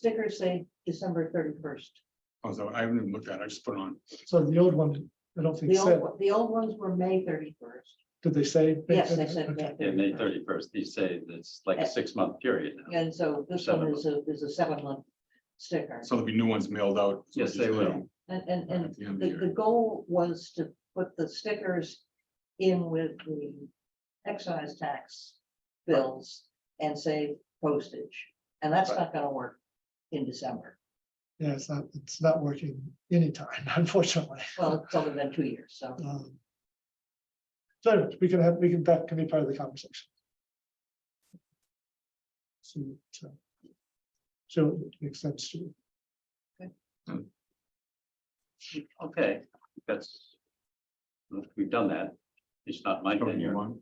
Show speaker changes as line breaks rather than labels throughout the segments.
stickers say December thirty-first.
although I haven't even looked at it, I just put it on.
So the old one, I don't think
The
said,
old, one- the old ones were May thirty-first.
did they say?
Yes, they said
Okay.
May
Yeah, May
31st.
thirty-first, you say it's like a six-month period now.
And so this one is a, is a seven-month sticker.
So there'll be new ones mailed out. is what
Yes,
you're
they
saying,
will.
And, and, and
At the end of the
the, the
year.
goal was to put the stickers in with the excise tax bills and save postage. And that's not gonna work in December.
Yeah, it's not, it's not working anytime, unfortunately.
Well, it's only been two years, so.
Um, So anyways, we can have, we can, that can be part of the conversation. So, so. So it makes sense to,
Okay, that's. We've done that. It's not my
Don't you
tenure.
want?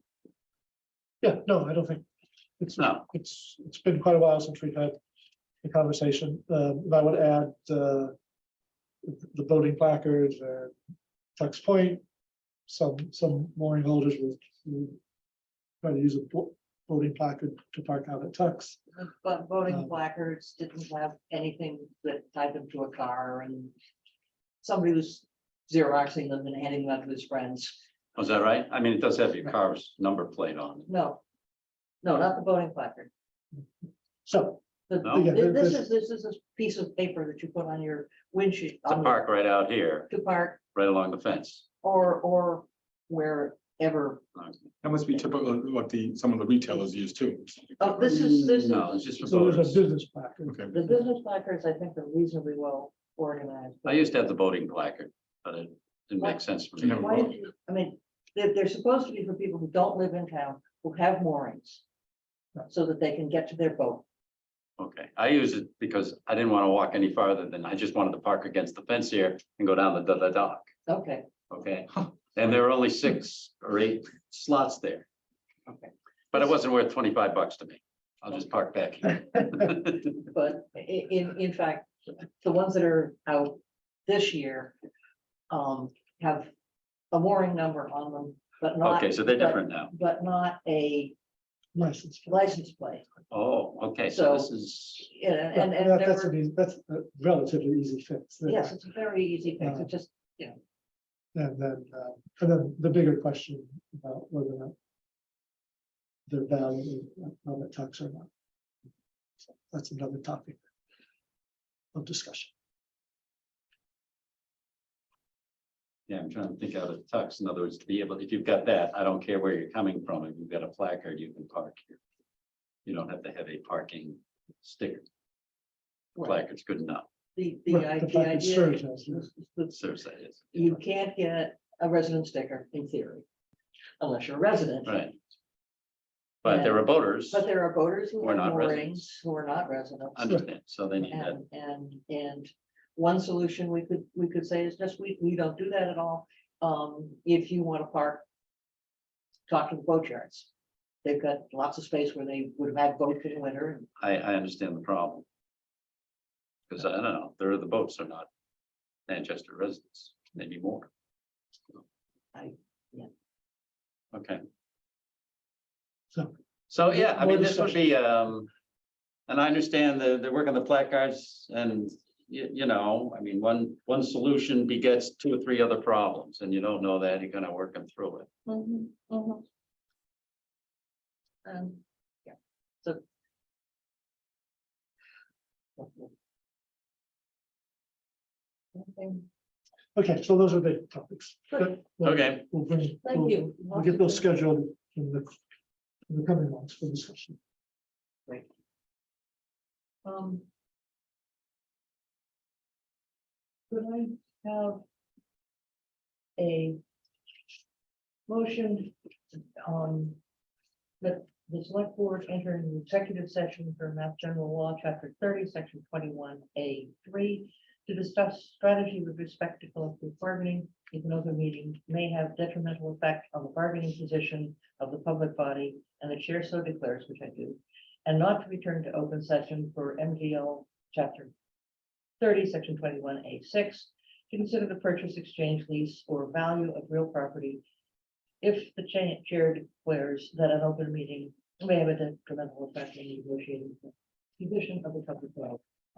yeah, no, I don't think. It's,
No.
it's, it's been quite a while since we've had the conversation, Um, and I would add, uh. The voting placards, uh, Tux Point, some, some mooring holders will. will Try to use a bo- voting placard to park out at Tux.
But voting
Um,
placards didn't have anything that tied them to a car and somebody was Xeroxing them and handing them out to his friends.
Was that right? I mean, it does have your car's number plate on it.
No. No, not the voting placard.
So,
The-
No?
Yeah,
thi- This
the-
is, this is a piece of paper that you put on your windshield.
It's a
on the-
park right out here,
To park
right along the fence.
or, or wherever.
That must be typical of what the, some of the retailers use too.
Oh, this is, this is,
No, it's just for
so there's a
voters.
business placard.
Okay,
the business placards, I think are reasonably well organized.
I used to have the voting placard, but it didn't make sense for
You never
me.
Why did you, I mean, they're, they're supposed to be for people who don't live in town, who have moorings. So that they can get to their boat.
Okay, I use it because I didn't want to walk any farther than, I just wanted to park against the fence here and go down the, the, the dock.
Okay,
Okay, and there are only six or eight slots there.
Okay.
But it wasn't worth twenty-five bucks to me. I'll just park back. here.
but i- in, in fact, the ones that are out this year. Um, have a mooring number on them, but not.
Okay, so they're
but-
different now.
But not a
License.
license plate,
Oh, okay, so this is,
Yeah, and, and
That-
there
That's,
were-
an eas- that's a relatively easy fix.
yes, it's a very easy fix,
Yeah.
it just,
And then, uh, and then the bigger question about whether or not. The value of the tax or not. So That's another topic. Of discussion.
yeah, I'm trying to think out of tux. In other words, to be able, if you've got that, I don't care where you're coming from. If you've got a placard, you can park here. You don't have to have a parking sticker.
well,
Placard's good enough.
the, the
Right,
i-
the
the
fact it
idea.
serves
is
as this-
that
Serves that is.
You can't get a resident sticker in theory, unless you're a resident.
Right. But there are voters,
But there are voters who
Who are
are
not
moorings, who are not residents,
understand, so they need that.
and, and, and one solution we could, we could say is just, we, we don't do that at all. Um, if you want to park, talk to the boatyards. They've got lots of space where they would have had boats in winter and
I, I understand the problem. Because I don't know, there are the boats are not Manchester residents, maybe more.
I- yeah.
Okay,
So,
so yeah, I
More
mean, this would be, um, and I understand the, the work on the placards and you, you know, I mean, one, one solution begets two or three other problems and you don't know that, you're gonna work them through it.
Mhm, mhm. Um, yeah, so. Nothing.
okay, so those are the topics.
Good.
We'll-
Okay.
We'll bring,
Thank
we'll,
you.
we'll get those scheduled in the, in the coming months for discussion.
Um. Could I have? A. Motion on. That the select board enter an executive session for Mass General Law, Chapter thirty, Section twenty-one, A three. To discuss strategy with respect to collective bargaining, if an open meeting may have detrimental effect on the bargaining position of the public body. And the chair so declares, which I do and not to return to open session for MGL chapter thirty, section twenty-one, A six, to consider the purchase, exchange, lease, or value of real property if the cha- chair declares that an open meeting may have a detrimental effect on the negotiating position of the public body.